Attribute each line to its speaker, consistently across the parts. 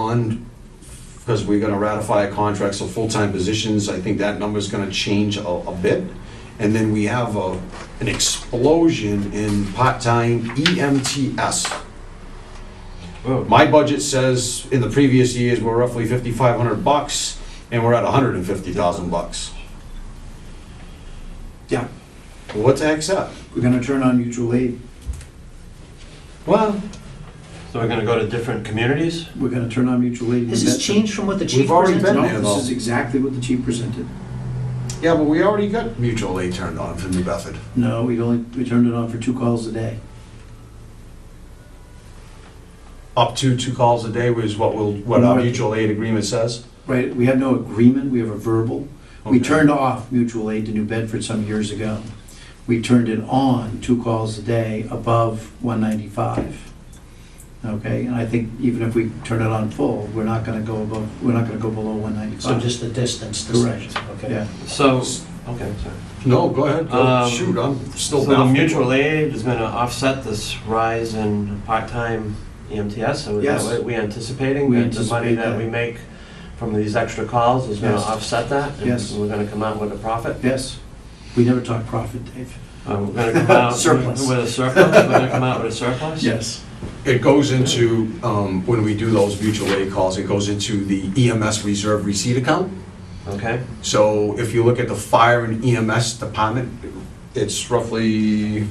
Speaker 1: one, because we're gonna ratify a contract, so full-time positions, I think that number's gonna change a, a bit. And then we have a, an explosion in part-time E EMTS.
Speaker 2: Oh.
Speaker 3: Whoa.
Speaker 1: My budget says in the previous years, we're roughly fifty-five hundred bucks, and we're at hundred and fifty thousand bucks.
Speaker 3: Yeah.
Speaker 1: What the heck's that?
Speaker 3: We're gonna turn on mutual aid.
Speaker 1: Well,
Speaker 2: So we're gonna go to different communities?
Speaker 3: We're gonna turn on mutual aid. and
Speaker 4: Has this
Speaker 3: investment.
Speaker 4: changed from what the chief
Speaker 1: We've already been
Speaker 4: presented?
Speaker 3: No,
Speaker 1: there. though.
Speaker 3: this is exactly what the chief presented.
Speaker 1: yeah, but we already got mutual aid turned on for New Bedford.
Speaker 3: No, we only, we turned it on for two calls a day.
Speaker 1: Up to two calls a day was what will, what our mutual aid agreement says.
Speaker 3: Right, we have no agreement, we have a verbal. We
Speaker 1: Okay.
Speaker 3: turned off mutual aid to New Bedford some years ago. We turned it on two calls a day above 195. Okay, and I think even if we turn it on full, we're not gonna go above, we're not gonna go below
Speaker 4: So
Speaker 3: 195.
Speaker 4: just the distance, the
Speaker 3: Correct.
Speaker 4: section, okay.
Speaker 3: Yeah,
Speaker 2: So, okay, sorry.
Speaker 1: No, go ahead, go,
Speaker 2: Um,
Speaker 1: shoot, I'm still.
Speaker 2: So the
Speaker 1: baffled.
Speaker 2: mutual aid is gonna offset this rise in part-time E EMTs, so is that
Speaker 3: Yes.
Speaker 2: what we anticipating?
Speaker 3: We
Speaker 2: that The money
Speaker 3: anticipate
Speaker 2: that
Speaker 3: that.
Speaker 2: we make from these extra calls is gonna
Speaker 3: Yes.
Speaker 2: offset that?
Speaker 3: Yes.
Speaker 2: And we're gonna come out with a profit?
Speaker 3: yes, we never talk profit, Dave.
Speaker 2: Uh, We're gonna come out
Speaker 3: Surplus.
Speaker 2: With a surplus, we're gonna come out with a surplus?
Speaker 3: Yes.
Speaker 1: It goes into, um, when we do those mutual aid calls, it goes into the EMS reserve receipt account.
Speaker 2: Okay,
Speaker 1: So if you look at the fire and EMS department, it's roughly,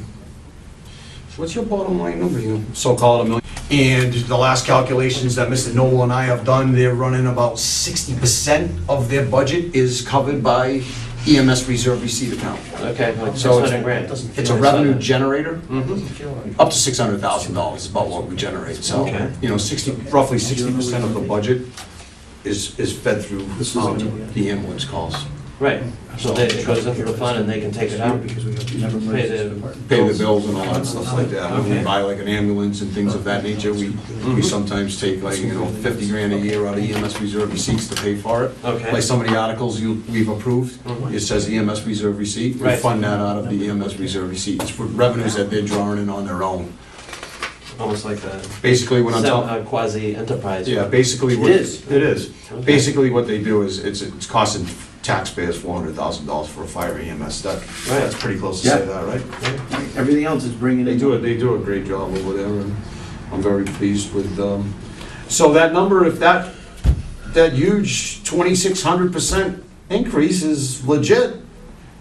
Speaker 1: what's your bottom line number, you so-called a million? And the last calculations that Mr. Noel and I have done, they're running about sixty percent of their budget is covered by EMS reserve receipt account.
Speaker 2: okay, like
Speaker 1: So it's-
Speaker 2: 600 grand.
Speaker 4: Doesn't feel
Speaker 1: It's a
Speaker 4: like-
Speaker 1: revenue generator,
Speaker 3: Mm-hmm.
Speaker 2: Mhm.
Speaker 4: Doesn't feel like-
Speaker 1: up to six hundred thousand dollars is about what we generate, so,
Speaker 2: Okay.
Speaker 1: you know, sixty, roughly sixty percent of the budget is, is fed through
Speaker 3: This is
Speaker 1: um,
Speaker 3: gonna be a-
Speaker 1: the ambulance calls.
Speaker 2: Right, so they- it goes into the fund and they can take it out.
Speaker 3: Because we never
Speaker 2: Pay
Speaker 3: merged
Speaker 2: the-
Speaker 3: this department.
Speaker 1: pay the bills and all that stuff like that. When we
Speaker 2: Okay. Mm-hmm.
Speaker 1: buy like an ambulance and things of that nature, we, we sometimes take like, you know, fifty grand a year out of EMS reserve receipts to pay for it.
Speaker 2: Okay.
Speaker 1: Like some of the articles you, we've approved,
Speaker 2: Mhm.
Speaker 1: it says EMS reserve receipt, we
Speaker 2: Right.
Speaker 1: fund that out of the EMS reserve receipt. It's for revenues that they're drawing in on their own.
Speaker 2: Almost like a
Speaker 1: Basically, what I'm talking,
Speaker 2: quasi-enterprise.
Speaker 1: yeah, basically.
Speaker 3: It
Speaker 1: what-
Speaker 3: is.
Speaker 1: It is.
Speaker 2: Okay.
Speaker 1: Basically, what they do is, it's, it's costing taxpayers four hundred thousand dollars for a fire EMS. That,
Speaker 2: Right.
Speaker 1: that's pretty close to say
Speaker 3: Yeah.
Speaker 1: that, right?
Speaker 3: Everything else is bringing
Speaker 1: They
Speaker 3: in.
Speaker 1: do it, they do a great job over there, and I'm very pleased with them. So that number, if that, that huge twenty-six hundred percent increase is legit,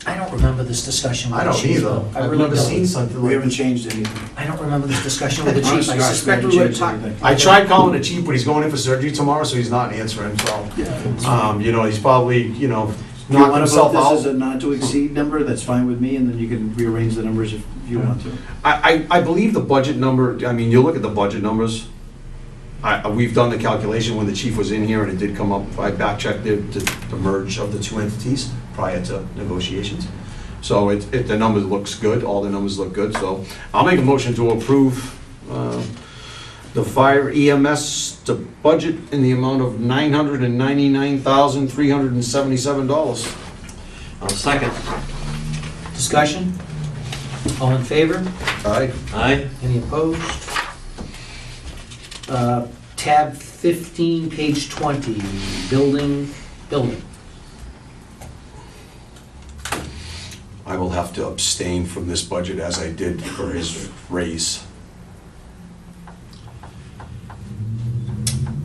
Speaker 4: I don't remember this discussion with
Speaker 1: I
Speaker 4: the
Speaker 1: don't
Speaker 4: chief.
Speaker 1: either.
Speaker 4: though. I
Speaker 1: I've
Speaker 4: really
Speaker 1: never
Speaker 4: don't.
Speaker 1: seen something
Speaker 3: We
Speaker 1: like
Speaker 3: haven't
Speaker 1: this.
Speaker 3: changed anything.
Speaker 4: I don't remember this discussion with the chief.
Speaker 3: Honest
Speaker 4: I
Speaker 3: to God,
Speaker 4: suspect
Speaker 3: haven't
Speaker 4: we would have
Speaker 3: changed
Speaker 4: talked.
Speaker 3: anything.
Speaker 1: I tried calling the chief, but he's going in for surgery tomorrow, so he's not answering, so,
Speaker 3: Yeah.
Speaker 1: um, you know, he's probably, you know,
Speaker 3: If you
Speaker 1: knocking
Speaker 3: want to vote
Speaker 1: himself
Speaker 3: this as a
Speaker 1: out.
Speaker 3: not to exceed number, that's fine with me, and then you can rearrange the numbers if you want to.
Speaker 1: I, I, I believe the budget number, I mean, you look at the budget numbers, I, I- we've done the calculation when the chief was in here, and it did come up, I backchecked the, the- the merge of the two entities prior to negotiations. So it, it, the number looks good, all the numbers look good, so I'll make a motion to approve, uh, the fire E EMS, the budget in the amount of nine hundred and ninety-nine thousand, three hundred and seventy-seven dollars.
Speaker 2: I'll second.
Speaker 4: Discussion? All in favor?
Speaker 1: Aye.
Speaker 2: Aye.
Speaker 4: Any opposed? Uh, Tab 15, page 20, building, building.
Speaker 1: I will have to abstain from this budget as I did for his raise.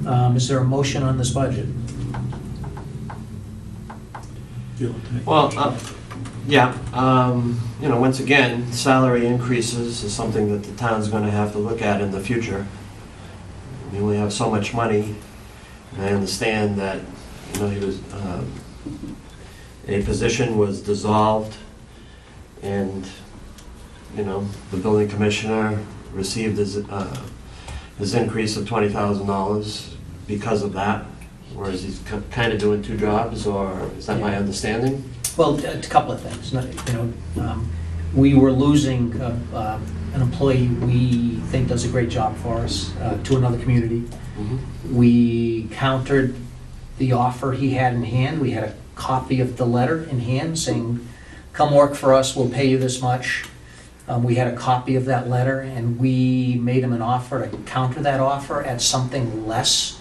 Speaker 4: Um, Is there a motion on this budget?
Speaker 2: Well, uh, yeah, um, you know, once again, salary increases is something that the town's gonna have to look at in the future. We only have so much money, and I understand that, you know, he was, um, a position was dissolved, and, you know, the building commissioner received his, uh, his increase of twenty thousand dollars because of that, whereas he's kind of doing two jobs, or is that my understanding?
Speaker 4: Well, a couple of things, not- you know, um, we were losing uh, um, an employee we think does a great job for us uh, to another community.
Speaker 2: Mm-hmm.
Speaker 4: We countered the offer he had in hand, we had a copy of the letter in hand saying, come work for us, we'll pay you this much. Um, We had a copy of that letter, and we made him an offer to counter that offer at something less